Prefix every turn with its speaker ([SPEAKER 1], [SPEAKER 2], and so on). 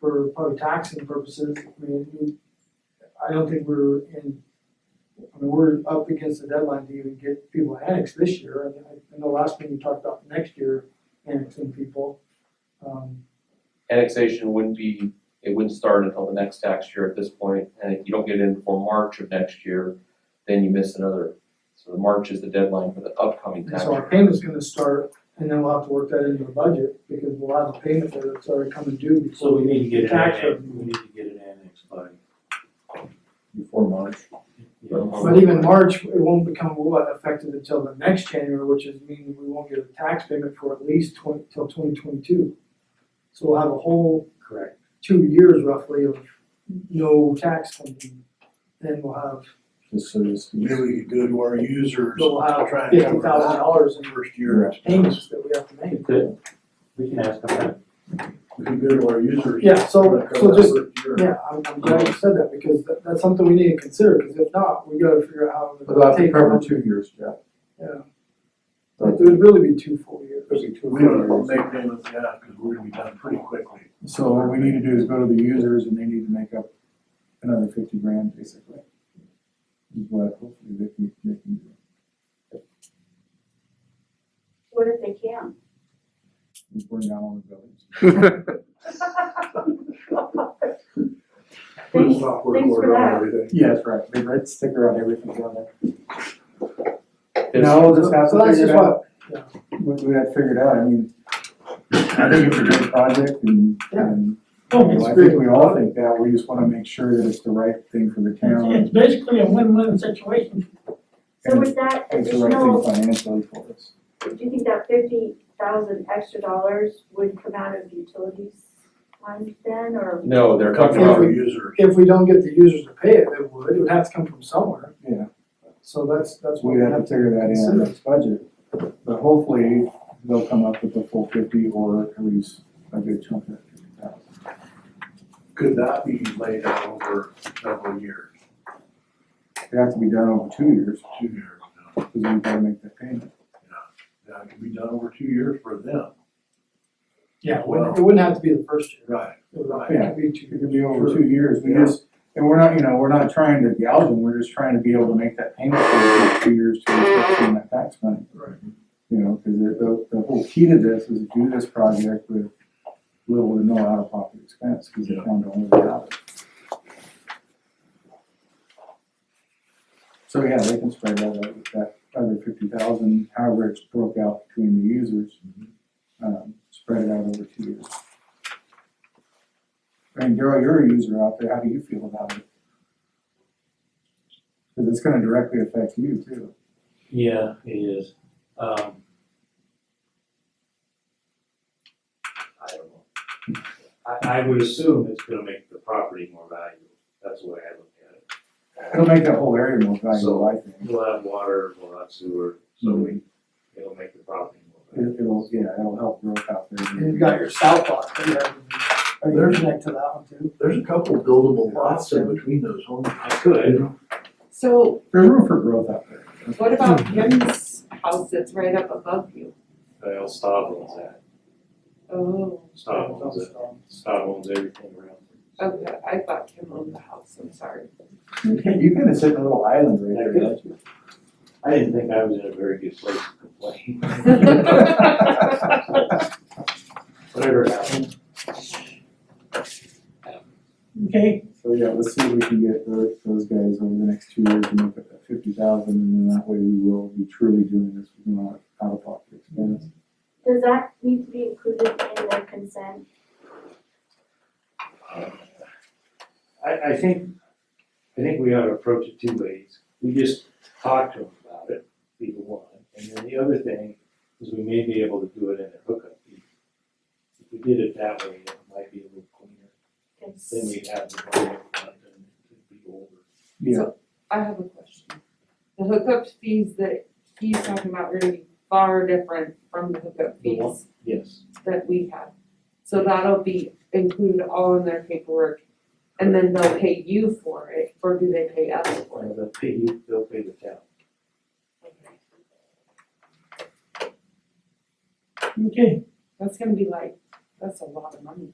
[SPEAKER 1] probably taxing purposes, I mean, you- I don't think we're in, I mean, we're up against the deadline to even get people annexed this year, and I, I know last meeting you talked about next year annexing people. Um,
[SPEAKER 2] annexation wouldn't be, it wouldn't start until the next tax year at this point, and if you don't get it in before March of next year, then you miss another. So the March is the deadline for the upcoming
[SPEAKER 1] and
[SPEAKER 2] tax
[SPEAKER 1] so our
[SPEAKER 2] year.
[SPEAKER 1] payment's gonna start, and then we'll have to work that into the budget, because we'll have a payment that's already coming due before.
[SPEAKER 3] So we need to get it
[SPEAKER 1] Tax
[SPEAKER 3] annexed,
[SPEAKER 1] revenue.
[SPEAKER 3] we need to get it annexed by,
[SPEAKER 4] before March.
[SPEAKER 3] you know,
[SPEAKER 1] But even March, it won't become what effective until the next January, which is meaning we won't get a tax payment for at least twenty, till twenty twenty-two. So we'll have a whole
[SPEAKER 3] correct.
[SPEAKER 1] two years roughly of no tax coming in. Then we'll have,
[SPEAKER 4] This is,
[SPEAKER 5] Maybe we could go to our users,
[SPEAKER 1] we'll have
[SPEAKER 5] try
[SPEAKER 1] fifty
[SPEAKER 5] and cover
[SPEAKER 1] thousand
[SPEAKER 5] that
[SPEAKER 1] dollars in
[SPEAKER 5] first year.
[SPEAKER 1] payments that we have to make.
[SPEAKER 3] We could, we can ask them that.
[SPEAKER 5] We could go to our users.
[SPEAKER 1] Yeah, so,
[SPEAKER 5] cover
[SPEAKER 1] so
[SPEAKER 5] that
[SPEAKER 1] just,
[SPEAKER 5] first year.
[SPEAKER 1] yeah, I'm, I'm glad you said that, because that, that's something we need to consider, because if not, we gotta figure out how
[SPEAKER 4] about
[SPEAKER 1] to
[SPEAKER 4] to
[SPEAKER 1] take.
[SPEAKER 4] cover two years, Jeff.
[SPEAKER 1] Yeah. Like, it would really be two full years.
[SPEAKER 5] We don't make payments yet, cause we're gonna be done pretty quickly.
[SPEAKER 4] So what we need to do is go to the users and they need to make up another fifty grand basically. Is what hopefully they can, they can do.
[SPEAKER 6] What if they can?
[SPEAKER 4] We burn down all the buildings.
[SPEAKER 5] Put a
[SPEAKER 6] Thanks,
[SPEAKER 5] software
[SPEAKER 6] thanks for
[SPEAKER 5] order on
[SPEAKER 6] that.
[SPEAKER 5] everything.
[SPEAKER 4] Yeah, that's right. Big red sticker on everything's on there.
[SPEAKER 2] This-
[SPEAKER 4] No, just have
[SPEAKER 1] So
[SPEAKER 4] to
[SPEAKER 1] that's
[SPEAKER 4] figure
[SPEAKER 1] just
[SPEAKER 4] it
[SPEAKER 1] what,
[SPEAKER 4] out. We, we had figured out, I mean, I think it's a great project and,
[SPEAKER 1] Yeah.
[SPEAKER 4] and you
[SPEAKER 7] Oh,
[SPEAKER 4] know,
[SPEAKER 7] it's
[SPEAKER 4] I
[SPEAKER 7] great.
[SPEAKER 4] think we all think that. We just wanna make sure that it's the right thing for the town.
[SPEAKER 7] It's basically a win-win situation.
[SPEAKER 6] So with that
[SPEAKER 4] It's the right thing
[SPEAKER 6] additional,
[SPEAKER 4] financially for us.
[SPEAKER 6] do you think that fifty thousand extra dollars would come out of utilities fund then, or?
[SPEAKER 2] No, they're
[SPEAKER 5] Come
[SPEAKER 2] talking
[SPEAKER 5] from
[SPEAKER 2] about,
[SPEAKER 5] our users.
[SPEAKER 1] if we don't get the users to pay it, it would, it would have to come from somewhere.
[SPEAKER 4] Yeah.
[SPEAKER 1] So that's, that's what we
[SPEAKER 4] We'd have to
[SPEAKER 1] have to,
[SPEAKER 4] figure that in our next budget, but hopefully they'll come up with the full fifty or at least a good chunk of fifty thousand.
[SPEAKER 5] Could that be laid out over several years,
[SPEAKER 4] It has to be done over two years,
[SPEAKER 5] two years? you know?
[SPEAKER 4] because we've got to make that payment.
[SPEAKER 5] That could be done over two years for them.
[SPEAKER 1] yeah, it wouldn't, it wouldn't have to be the first year.
[SPEAKER 5] Right.
[SPEAKER 1] It would have
[SPEAKER 4] Yeah.
[SPEAKER 1] to be two
[SPEAKER 4] It
[SPEAKER 1] years.
[SPEAKER 4] could be over two years, we just, and we're not, you know, we're not trying to gouge them, we're just trying to be able to make that payment for two years to get some of that tax money.
[SPEAKER 1] Right.
[SPEAKER 4] You know, because the, the whole key to this is do this project with little to no out-of-pocket expense, because the
[SPEAKER 5] Yeah.
[SPEAKER 4] town don't really have it. So yeah, they can spread that out with that other fifty thousand, however it's broke out between the users. Um, spread it out over two years. I mean, Daryl, you're a user out there, how do you feel about it? Because it's gonna directly affect you too.
[SPEAKER 3] Yeah, it is. Um, I don't know. I, I would assume it's gonna make the property more valuable. That's the way I look at it.
[SPEAKER 4] It'll make that whole area more valuable, I think.
[SPEAKER 3] We'll have water, we'll have sewer, so we,
[SPEAKER 6] Mm-hmm.
[SPEAKER 3] it'll make the property more valuable.
[SPEAKER 4] It- It'll, yeah, it'll help growth out there.
[SPEAKER 1] And you've got your south lot, that you have, are you connected to that one too?
[SPEAKER 5] There's a couple buildable lots in between those homes.
[SPEAKER 3] I could,
[SPEAKER 8] So
[SPEAKER 4] There's room for growth out there.
[SPEAKER 8] what about Jim's house that's right up above you?
[SPEAKER 3] Well, Staub owns that.
[SPEAKER 8] Oh,
[SPEAKER 3] Staub owns it. Staub owns everything around.
[SPEAKER 8] okay, I thought Jim owned the house, I'm sorry.
[SPEAKER 4] You can, you can sit in a little island right there, don't you?
[SPEAKER 3] I didn't think I was in a very good place to complain. Whatever happened.
[SPEAKER 7] Okay,
[SPEAKER 4] So yeah, let's see if we can get those, those guys over the next two years and make up that fifty thousand, and then that way we will be truly doing this, you know, out of pocket expense.
[SPEAKER 6] Does that need to be included in the consent?
[SPEAKER 3] I, I think, I think we ought to approach it two ways. We just talk to them about it, be the one. And then the other thing is we may be able to do it in a hookup fee. If we did it that way, it might be a little cleaner. Then we'd have the money upfront and it'd be over.
[SPEAKER 4] Yeah,
[SPEAKER 8] I have a question. The hookup fees that he's talking about are gonna be far different from the hookup
[SPEAKER 3] The what?
[SPEAKER 8] fees
[SPEAKER 3] Yes.
[SPEAKER 8] that we have. So that'll be included all in their paperwork, and then they'll pay you for it, or do they pay us for it?
[SPEAKER 3] Or they'll pay you, they'll pay the town.
[SPEAKER 7] okay.
[SPEAKER 8] That's gonna be like, that's a lot of money.